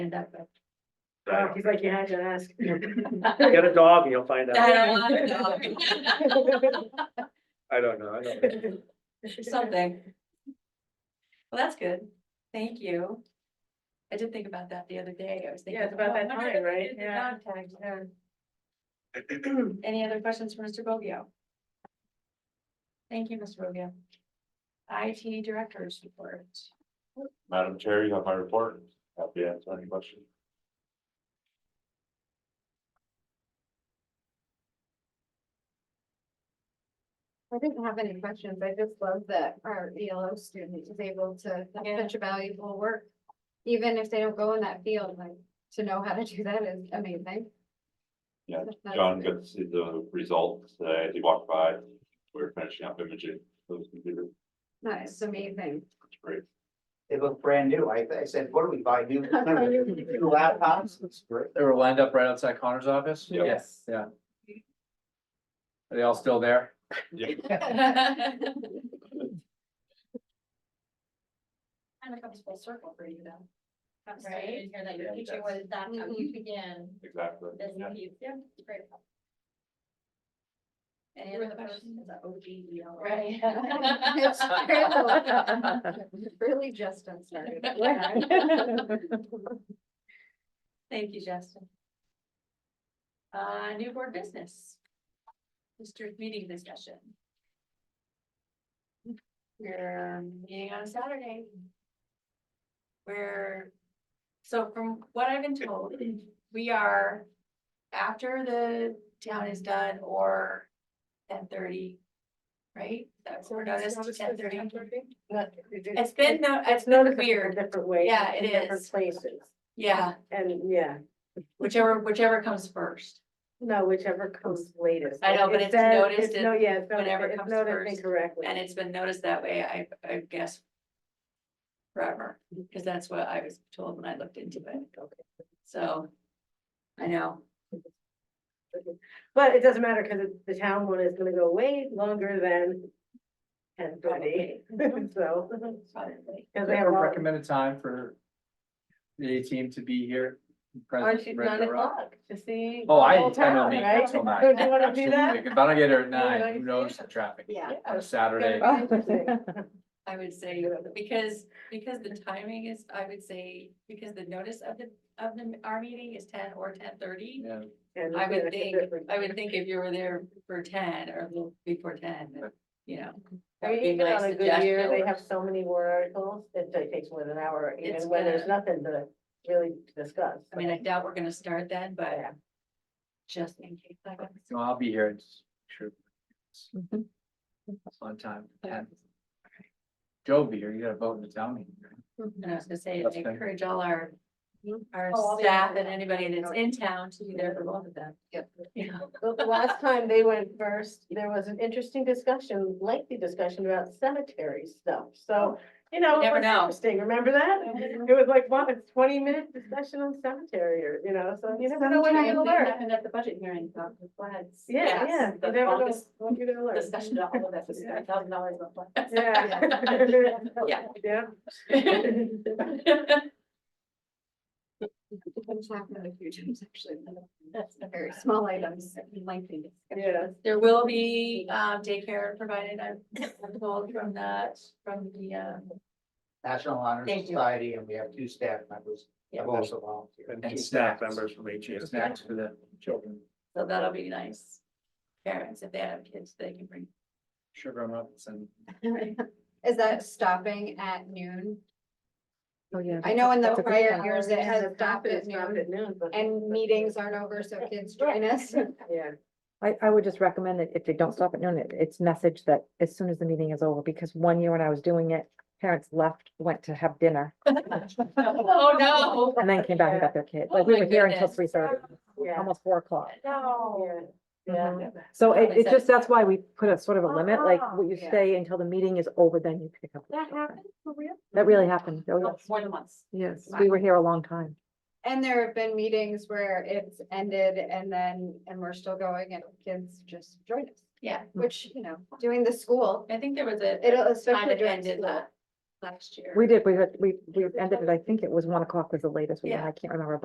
end up with. I He's like, you had to ask. don't- Get a dog and you'll find I out. don't want a dog. I don't know. I don't know. something. Well, that's good. Thank you. I did think about that the other day. I was thinking. Yeah, it's about oh, I that wonder time, if they right? did the Yeah. dog tags, yeah. Any other questions for Mr. Bogio? Thank you, Mr. Bogio. IT Director's report. Madam Chair, you have my report. Happy to answer any questions. I didn't have any questions. I just love that our ELO student is able to, Yeah. that's such valuable work. Even if they don't go in that field, like, to know how to do that is amazing. Yeah, That's John good. got to see the results today as he walked by. We are finishing up imaging those computers. That is amazing. It's great. They look brand new. I, I said, what do we buy new? New laptops? It's great. They were lined up right outside Connor's office? Yeah. Yes. Yeah. Are they all still there? Yeah. Kind of comes full circle for you though. I'm sorry, I Right? didn't hear Mm-hmm. that Yeah, your it future does. was that how you began Exactly. this Yeah. piece. Yeah, great. Any You were other the first, questions? the OG, you know, Right. It's true. Really Justin started. Thank you, Justin. Uh, new board business. District meeting discussion. We're meeting on Saturday. We're, so from what I've been told, we are after the town is done or ten thirty. Right? That's what notice, ten thirty. It's been, no, it's been weird. Different ways. Yeah, it different is. Places, Yeah, and yeah, whichever, whichever comes first. no, whichever comes latest. I know, but It it's says- noticed it's No, yeah, it's whenever noticed, it's comes noticed first, incorrectly. And it's been noticed that way, I, I guess. Forever, because that's what I was told when I looked into it, Okay. so. I know, But it doesn't matter, because the town one is gonna go way longer than ten thirty, so. probably, Because They have a recommended time for the A team to be here. Or present, she's ready to nine rock. o'clock to see. Oh, the I, I whole don't town, meet right? until nine. Do you wanna do Absolutely. that? If I don't get here at like, nine, who knows the traffic Yeah. on a Saturday? I would say, because, because the timing is, I would say, because the notice of the, of the, our meeting is ten or ten thirty. Yeah, And I yeah, would it's think, different. I would think if you were there for ten or a little before ten, then, you know. I that mean, would be even my on a good year, they suggestion. have so many war articles, it ta- takes more than an hour, It's even when there's nothing to really discuss. I mean, I doubt we're gonna start then, but Yeah. just in case. I guess. so I'll be here, it's true. On time, ten. Joe will be here, you gotta vote in the town meeting. right? And I was gonna say, That's I fine. encourage all our, our Oh, I'll be staff there. and anybody that's in town to be there for both of them. Yep. Yeah, But the last time they went first, there was an interesting discussion, lengthy discussion about cemetery stuff, so, you You know. it never was know. Interesting, remember that? It was like, wow, it's twenty minute discussion on cemetery, or, you know, so you never know what you're Sometimes gonna it learn. happened at the budget hearing, about the floods. Yeah, Yes, yeah, the you never know longest what you're gonna learn. Discussion about all of that, was a thousand dollars of floods. Yeah. Yeah. Yeah. It's happened a few times, actually. That's very small items, lengthy. Yeah. There will be, um, daycare provided, I'm I'm told from the, from the, um, National Honor Thank you. Society, and we have two staff members Yeah. have also volunteered. And two staff members from each year. Snacks for the children, so that'll be nice. Parents, if they have kids, they can bring. sugar them up and send Is that stopping at noon? Oh, yeah. I know in the That's a big prior one. years it Yeah, has the stopped profit at is dropped noon at noon, but- and meetings aren't over, so kids join us. Yeah, I, I would just recommend that if they don't stop at noon, it- it's message that as soon as the meeting is over, because one year when I was doing it, parents left, went to have dinner, Oh, no. and then came back and got their kid. Like, Oh, we my were here until goodness. three thirty, yeah, almost four o'clock. No. yeah, yeah. So Well, it, is it that- just, that's why we put a sort of a limit, like, what you yeah. stay until the meeting is over, then you pick up. the That children. happened for real? That really happened. Oh, Oh, yes. More than once. Yes, we were here a long time. And there have been meetings where it's ended and then, and we're still going and kids just join us, Yeah, which, you know, doing the school, I think there was a. it'll Kind especially of during ended school. that. last year. We did, we, had- we, we ended it, I think it was one o'clock was the latest, we, went. Yeah. I can't remember,